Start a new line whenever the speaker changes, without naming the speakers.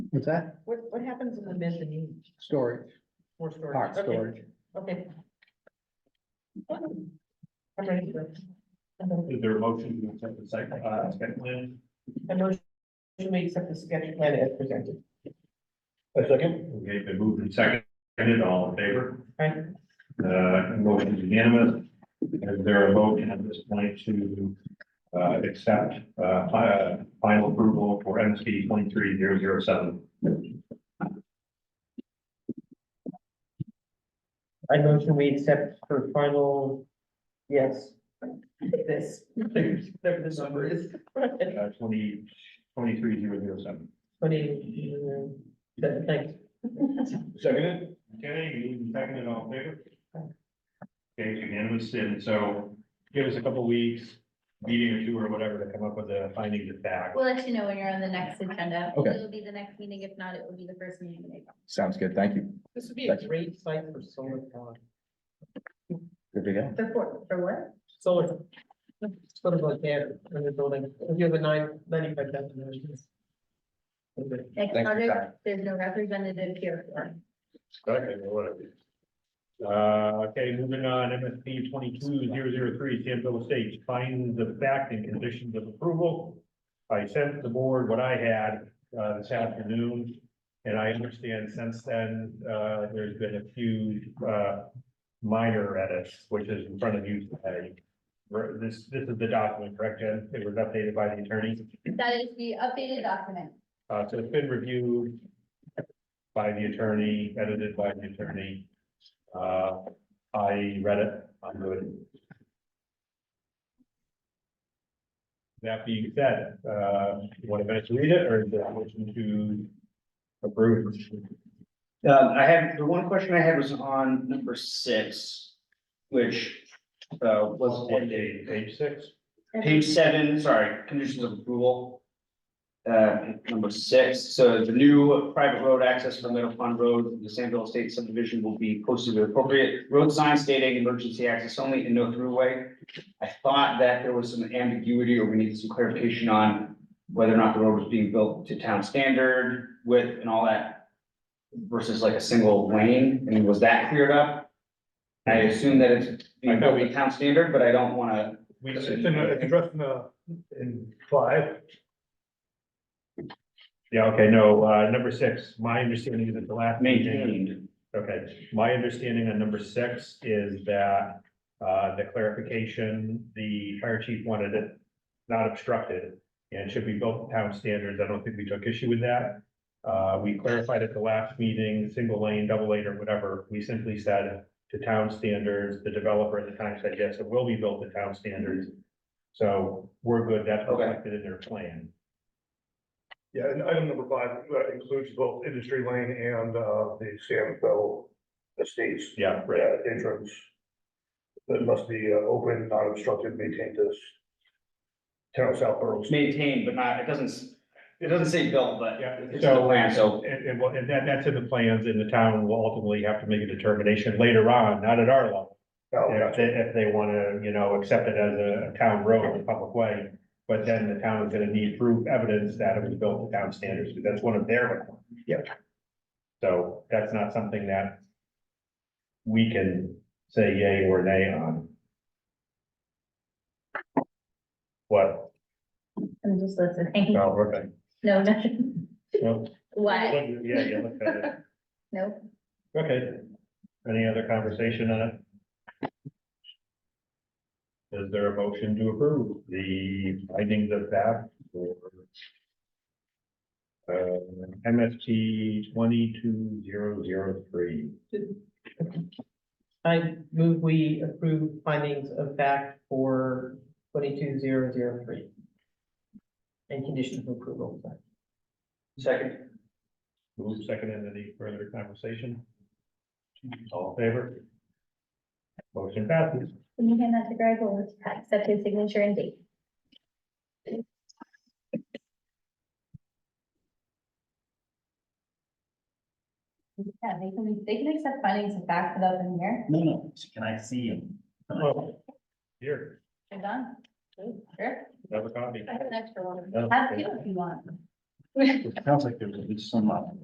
What's that?
What, what happens in the mezzanine?
Storage.
More storage?
Part
Okay.
storage.
Okay. I'm ready for it.
Is there a motion to accept the site, uh, site plan?
I motion we accept the sketch plan as presented.
A second. Okay, been moved and seconded, all in favor?
Right?
Uh, motion is unanimous. Is there a vote at this point to, uh, accept, uh, fi- uh, final approval for MSP twenty-three zero zero seven?
I motion we accept for final, yes. This, whatever this number is.
Uh, twenty, twenty-three zero zero seven.
Twenty, um, that- thanks.
Seconded. Okay, moved and seconded, all in favor? Okay, it's unanimous, and so give us a couple weeks, meeting or two or whatever, to come up with the findings of fact.
We'll let you know when you're on the next agenda.
Okay.
It'll be the next meeting. If not, it will be the first meeting in April.
Sounds good. Thank you.
This would be a great site for solar power.
Good to go.
Before, for what?
Solar. Sort of like that, when you're building, if you have a nine, ninety-five thousand. dollars. Okay.
Thanks
Next
for
project,
time.
There's no representative here.
Okay, whatever. Uh, okay, moving on, MSP twenty-two zero zero three, Sanville Estates, finds the fact and conditions of approval. I sent the board what I had, uh, this afternoon, and I understand since then, uh, there's been a few, uh, minor edits, which is in front of you today. Ver- This, this is the document, correct, Jen? It was updated by the attorney.
That is the updated document.
Uh, so it's been reviewed by the attorney, edited by the attorney. Uh, I read it, I'm good. That being said, uh, you want to finish to read it or is there a motion to approve?
Uh, I had, the one question I had was on number six, which, uh, was
What page, page six?
page seven, sorry, conditions of approval. Uh, number six, so the new private road access for Middle Pond Road, the Sandville Estate subdivision will be posted with appropriate road sign stating emergency access only and no throughway. I thought that there was some ambiguity or we needed some clarification on whether or not the road was being built to town standard width and all that versus like a single lane, I mean, was that cleared up? I assume that it's being built to town standard, but I don't wanna
We,
It's in the- it's
addressed in, in five. Yeah, okay, no, uh, number six, my understanding is that the last. meeting-
maintained.
Okay, my understanding on number six is that, uh, the clarification, the fire chief wanted it not obstructed and should be built to town standards. I don't think we took issue with that. Uh, we clarified at the last meeting, single lane, double lane or whatever. We simply said to town standards, the developer at the time said, yes, it will be built to town standards. So we're good. That's
Okay.
reflected in their plan.
Yeah, and item number five uh, includes both industry lane and uh, the Samville Estates
Yeah, right.
uh, entrance. That must be uh, open, not obstructed, maintained as town south boroughs.
Maintained, but not, it doesn't, s- it doesn't say built, but
Yeah,
it's in the
so-
plan, so.
And, and well, and that, that's in the plans and the town will ultimately have to make a determination later on, not at our level.
Oh,
If they, if they wanna, you know, accept it as a town road, a public way. But then the town is gonna need proof evidence that it was built to town standards, because that's one of their requirements.
Yep.
So that's not something that we can say yay or nay on. What?
I'm just listening.
No, okay.
No, nothing.
No.
What?
Yeah, yeah, look at it.
No.
Okay. Any other conversation on it? Is there a motion to approve the findings of fact for uh, MST twenty-two zero zero three?
I move we approve findings of fact for twenty-two zero zero three. And conditions of approval.
Second,
Move second into any further conversation? All in favor? Motion passes.
Can you hand that to Greg? We'll accept his signature and date. Yeah, they can, they can accept findings of fact without them here.
no, no, can I see him?
Oh, Here,
They're done. Sure.
have a copy.
I have an extra one.
No.
Have two if you want.
It sounds like there's at least some, uh,